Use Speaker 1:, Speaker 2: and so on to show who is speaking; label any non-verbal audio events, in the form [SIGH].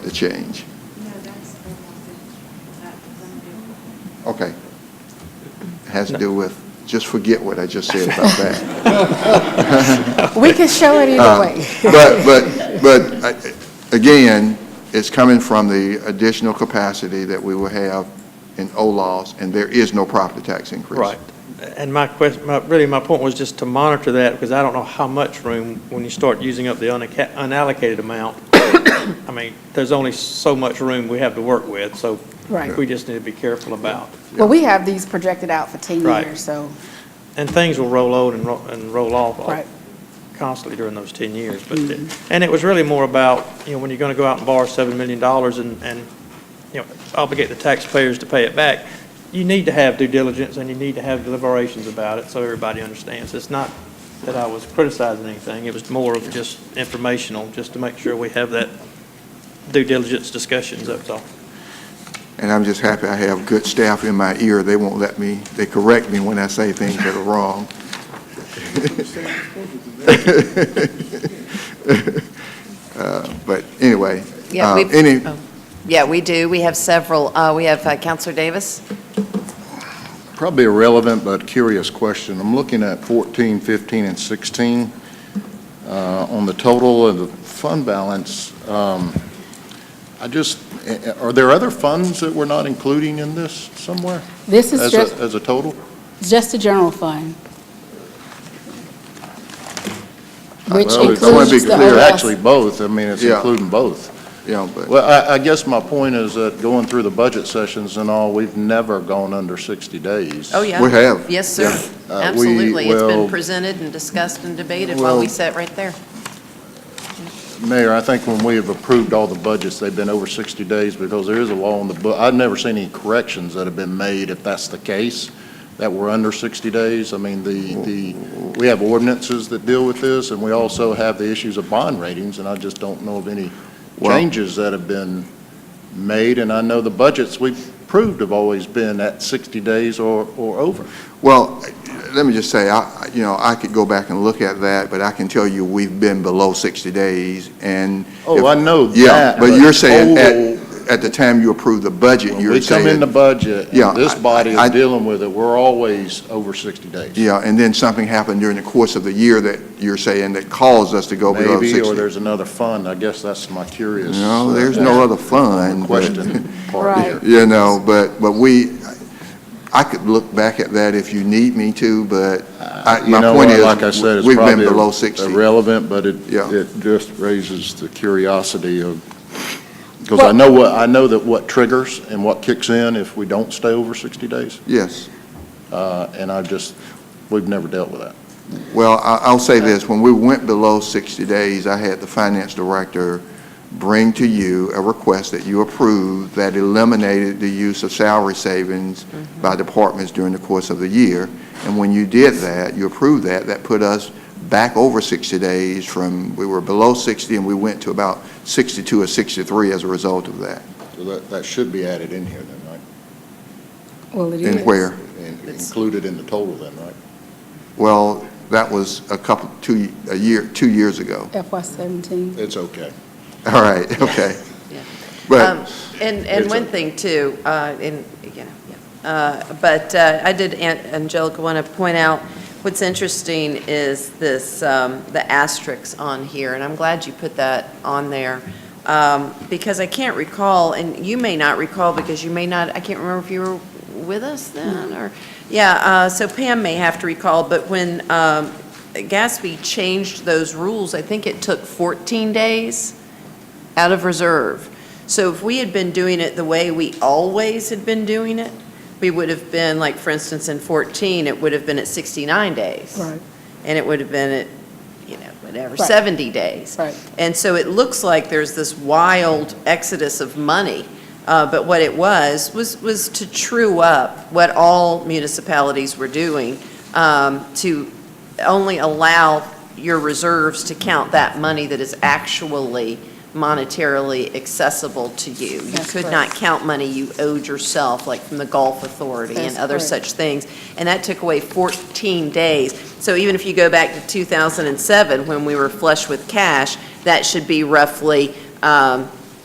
Speaker 1: the change.
Speaker 2: No, that's the one that, that's
Speaker 1: Okay. Has to do with, just forget what I just said about that. [LAUGHS]
Speaker 3: [LAUGHS]
Speaker 4: We can show it either way.
Speaker 1: Uh, But, but, but, I- again, it's coming from the additional capacity that we will have in OLOS, and there is no property tax increase.
Speaker 3: Right. And my question, my, really, my point was just to monitor that, because I don't know how much room, when you start using up the unacca- unallocated amount, [COUGHS] I mean, there's only so much room we have to work with, so
Speaker 4: Right.
Speaker 3: we just need to be careful about.
Speaker 4: Well, we have these projected out for 10
Speaker 3: Right.
Speaker 4: years, so,
Speaker 3: And things will roll on and roll, and roll off
Speaker 4: right.
Speaker 3: constantly during those 10 years. But, the- and it was really more about, you know, when you're going to go out and borrow $7 million and, and, you know, obligate the taxpayers to pay it back, you need to have due diligence and you need to have deliberations about it so everybody understands. It's not that I was criticizing anything, it was more of just informational, just to make sure we have that due diligence discussions, that's all.
Speaker 1: And I'm just happy I have good staff in my ear. They won't let me, they correct me when I say things that are wrong. [LAUGHS] Uh, But anyway,
Speaker 5: Yeah,
Speaker 1: uh,
Speaker 5: we've-
Speaker 1: any,
Speaker 5: oh. Yeah, we do. We have several. Uh, We have uh, Counselor Davis.
Speaker 6: Probably irrelevant but curious question. I'm looking at 14, 15, and 16. Uh, On the total of the fund balance, um, I just, eh, eh, are there other funds that we're not including in this somewhere?
Speaker 7: This is
Speaker 6: As a,
Speaker 7: just,
Speaker 6: as a total?
Speaker 7: just the general fund. Which
Speaker 6: Well,
Speaker 7: includes
Speaker 6: I want to be
Speaker 7: the
Speaker 6: clear,
Speaker 7: OLS.
Speaker 6: actually both. I mean, it's
Speaker 1: Yeah.
Speaker 6: including both.
Speaker 1: you know, but,
Speaker 6: Well, I, I guess my point is that going through the budget sessions and all, we've never gone under 60 days.
Speaker 5: Oh, yeah.
Speaker 1: We have.
Speaker 5: Yes, sir.
Speaker 6: Uh, we-
Speaker 5: Absolutely. It's been
Speaker 6: well-
Speaker 5: presented and discussed and debated while we
Speaker 6: Well-
Speaker 5: sat right there.
Speaker 6: Mayor, I think when we have approved all the budgets, they've been over 60 days because there is a law on the book. I've never seen any corrections that have been made, if that's the case, that were under 60 days. I mean, the, the, we have ordinances that deal with this, and we also have the issues of bond ratings, and I just don't know of any
Speaker 1: Well-
Speaker 6: changes that have been made. And I know the budgets we've approved have always been at 60 days or, or over.
Speaker 1: well, let me just say, I, I- you know, I could go back and look at that, but I can tell you, we've been below 60 days, and.
Speaker 6: Oh, I know that.
Speaker 1: Yeah, but you're saying
Speaker 6: total-
Speaker 1: at, at the time you approved the budget,
Speaker 6: When
Speaker 1: you're
Speaker 6: we come in the
Speaker 1: saying,
Speaker 6: budget,
Speaker 1: Yeah,
Speaker 6: and this
Speaker 1: I-
Speaker 6: body
Speaker 1: I-
Speaker 6: is dealing with it, we're always over 60 days.
Speaker 1: yeah, and then something happened during the course of the year that you're saying that caused us to go below 60.
Speaker 6: Maybe, or there's another fund, I guess that's my curious.
Speaker 1: No,
Speaker 6: uh,
Speaker 1: there's no other fund. but-
Speaker 6: Question
Speaker 1: [LAUGHS]
Speaker 6: part
Speaker 7: Right.
Speaker 6: here.
Speaker 1: You know, but, but we, I could look back at that if you need me to, but I-
Speaker 6: Uh, you
Speaker 1: my
Speaker 6: know
Speaker 1: point
Speaker 6: what,
Speaker 1: is,
Speaker 6: Like I said, it's
Speaker 1: we've been
Speaker 6: probably
Speaker 1: below 60.
Speaker 6: irrelevant, but it,
Speaker 1: Yeah.
Speaker 6: it just raises the curiosity of, because I know what, I know that what triggers and what kicks in if we don't stay over 60 days,
Speaker 1: Yes.
Speaker 6: uh, and I just, we've never dealt with that.
Speaker 1: Well, I- I'll say this, when we went below 60 days, I had the finance director bring to you a request that you approved that eliminated the use of salary savings
Speaker 5: Mm-hmm.
Speaker 1: by departments during the course of the year. And when you did that, you approved that, that put us back over 60 days from, we were below 60 and we went to about 62 or 63 as a result of that.
Speaker 6: So that, that should be added in here then, right?
Speaker 7: Well, it is.
Speaker 1: And where?
Speaker 6: And
Speaker 5: It's-
Speaker 6: included in the total then, right?
Speaker 1: Well, that was a couple, two, a year, two years ago. [LAUGHS]
Speaker 7: FY seventeen.
Speaker 6: It's okay.
Speaker 1: All right, okay.
Speaker 5: yeah.
Speaker 1: But
Speaker 5: Um, And, and
Speaker 6: It's
Speaker 5: one
Speaker 6: a-
Speaker 5: thing too, uh, in, you know, yeah. Uh, but uh, I did, Aunt Angelica, want to point out, what's interesting is this, um, the asterisks on here, and I'm glad you put that on there, um, because I can't recall, and you may not recall, because you may not, I can't remember if you were with us then, or, yeah, uh, so Pam may have to recall, but when um, Gatsby changed those rules, I think it took 14 days out of reserve. So if we had been doing it the way we always had been doing it, we would have been, like, for instance, in 14, it would have been at 69 days.
Speaker 7: Right,
Speaker 5: And it would have been at, you know, whatever,
Speaker 7: Right.
Speaker 5: 70 days.
Speaker 7: right.
Speaker 5: And so it looks like there's this wild exodus of money. Uh, But what it was, was, was to true up what all municipalities were doing, um, to only allow your reserves to count that money that is actually monetarily accessible to you. You
Speaker 7: That's
Speaker 5: could not
Speaker 7: correct.
Speaker 5: count money you owed yourself, like from the Gulf Authority and
Speaker 7: That's
Speaker 5: other
Speaker 7: correct.
Speaker 5: such things. And that took away 14 days. So even if you go back to 2007, when we were flush with cash, that should be roughly um,